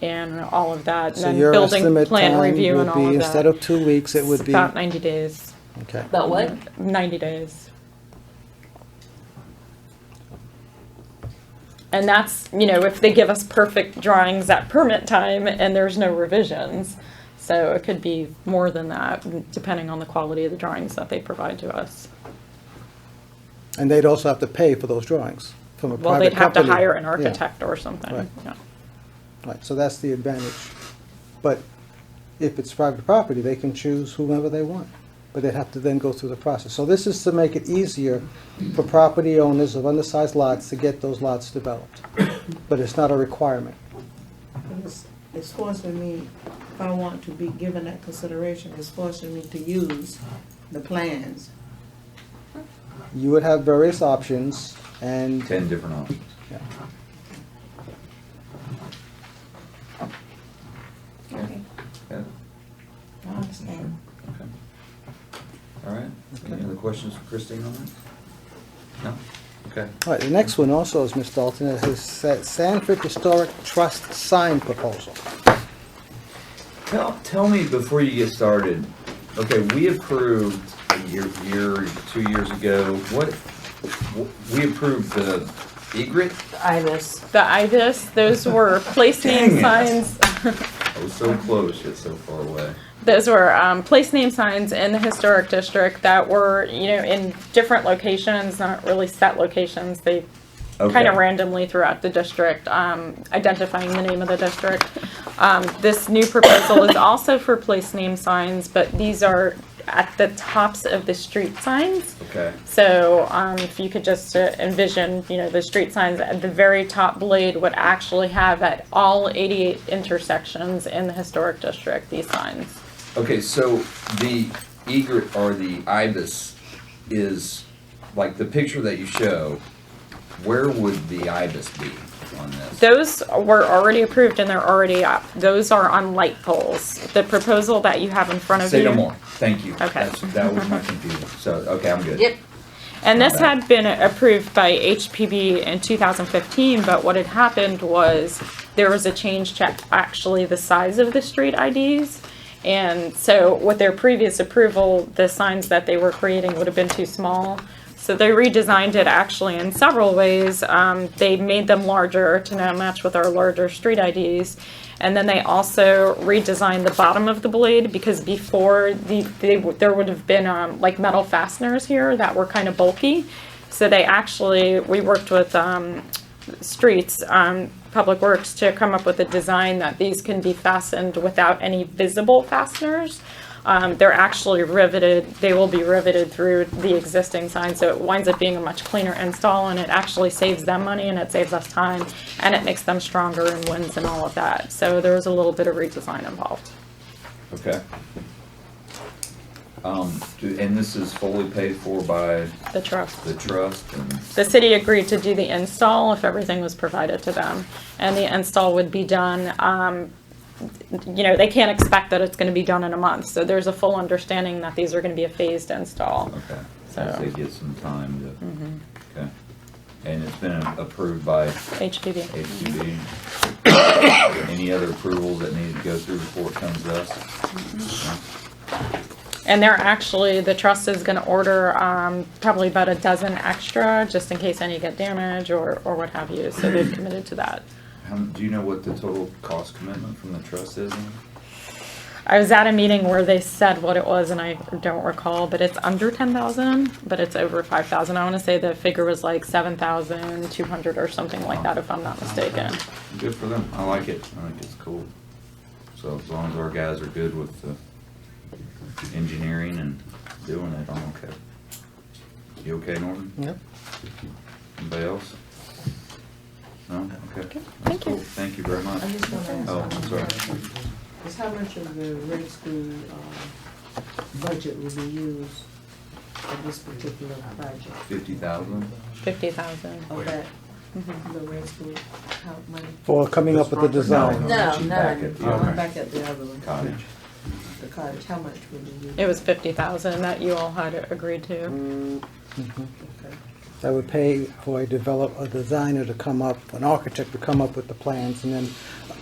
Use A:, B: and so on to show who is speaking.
A: and all of that,
B: So
A: and
B: your
A: then building
B: estimate
A: plan
B: time
A: review and
B: would
A: all
B: be,
A: of
B: instead
A: that.
B: of two weeks, it would
A: It's
B: be,
A: About ninety days,
B: okay.
C: About what?
A: ninety days. And that's, you know, if they give us perfect drawings at permit time and there's no revisions. So it could be more than that, depending on the quality of the drawings that they provide to us.
B: And they'd also have to pay for those drawings from a private company.
A: Well, they'd have to hire an
B: Yeah.
A: architect or
B: Right.
A: something, yeah.
B: Right, so that's the advantage. But if it's private property, they can choose whomever they want, but they'd have to then go through the process. So this is to make it easier for property owners of undersized lots to get those lots developed, but it's not a requirement.
D: It's, it's forcing me, if I want to be given that consideration, it's forcing me to use the plans.
B: You would have various options, and
E: 10 different options.
D: Okay.
E: Yeah,
D: I understand.
E: okay. All right, any other questions for Christine on that? No? Okay.
B: All right, the next one also is Ms. Dalton, is his Sa- Sanford Historic Trust sign proposal.
E: Tell, tell me before you get started, okay, we approved a year, year, two years ago, what, we approved the egret?
C: Ibis.
A: The IVIS, those were place name
E: Dang it.
A: signs.
E: I was so close, yet so far away.
A: Those were um, place name signs in the historic district that were, you know, in different locations, not really set locations. They kind
E: Okay.
A: of randomly throughout the district, um, identifying the name of the district. Um, This new proposal is also for place name signs, but these are at the tops of the street signs.
E: Okay,
A: So um, if you could just uh, envision, you know, the street signs at the very top blade would actually have at all 88 intersections in the historic district, these signs.
E: okay, so the egret or the ibis is, like the picture that you show, where would the ibis be on this?
A: Those were already approved and they're already up. Those are on light poles. The proposal that you have in front of you.
E: Say no more, thank you.
A: Okay.
E: That's- That was my confusion, so, okay, I'm good.
C: Yep.
A: And this
E: Okay.
A: had been approved by HPB in 2015, but what had happened was there was a change to actually the size of the street IDs. And so with their previous approval, the signs that they were creating would have been too small. So they redesigned it actually in several ways. Um, they made them larger to now match with our larger street IDs. And then they also redesigned the bottom of the blade because before the, they, there would have been um, like metal fasteners here that were kind of bulky. So they actually, we worked with um, streets, um, Public Works to come up with a design that these can be fastened without any visible fasteners. Um, they're actually riveted, they will be riveted through the existing sign, so it winds up being a much cleaner install and it actually saves them money and it saves us time and it makes them stronger and wins and all of that. So there was a little bit of redesign involved.
E: Okay. Um, do- and this is fully paid for by
A: The trust.
E: the trust and,
A: The city agreed to do the install if everything was provided to them. And the install would be done, um, you know, they can't expect that it's gonna be done in a month. So there's a full understanding that these are gonna be a phased install.
E: okay, so
A: So-
E: they get some time to, okay. And it's been approved by
A: HPV.
E: HDB. E Any other approvals that need to go through before it comes to us?
A: And they're actually, the trust is gonna order, um, probably about a dozen extra, just in case any get damaged or, or what have you. So they've committed to that.
E: How, Um, do you know what the total cost commitment from the trust is?
A: I was at a meeting where they said what it was, and I don't recall, but it's under ten thousand, but it's over five thousand. I want to say the figure was like seven thousand two hundred or something like that, if I'm not mistaken.
E: Good for them. I like it. I think it's cool. So as long as our guys are good with the engineering and doing it, I'm okay. You okay, Norton?
B: Yep.
E: Anybody else? No? Okay.
A: Okay,
E: That's
A: thank you.
E: cool. Thank you very much.
D: I just want to ask.
E: Oh, I'm sorry.
D: Is how much of the red school, um, budget will be used for this particular project?
E: Fifty thousand?
A: Fifty thousand.
D: Of that,
A: Mm-hmm.
D: the red school, how money?
B: For coming up with the design.
D: No, no,
E: Back at the
D: I'm
E: other
D: back at the other one,
E: Cottage.
D: the cottage, how much will be used?
A: It was fifty thousand that you all had agreed to.
D: Okay.
B: Mm-hmm. That would pay for a develop, a designer to come up, an architect to come up with the plans, and then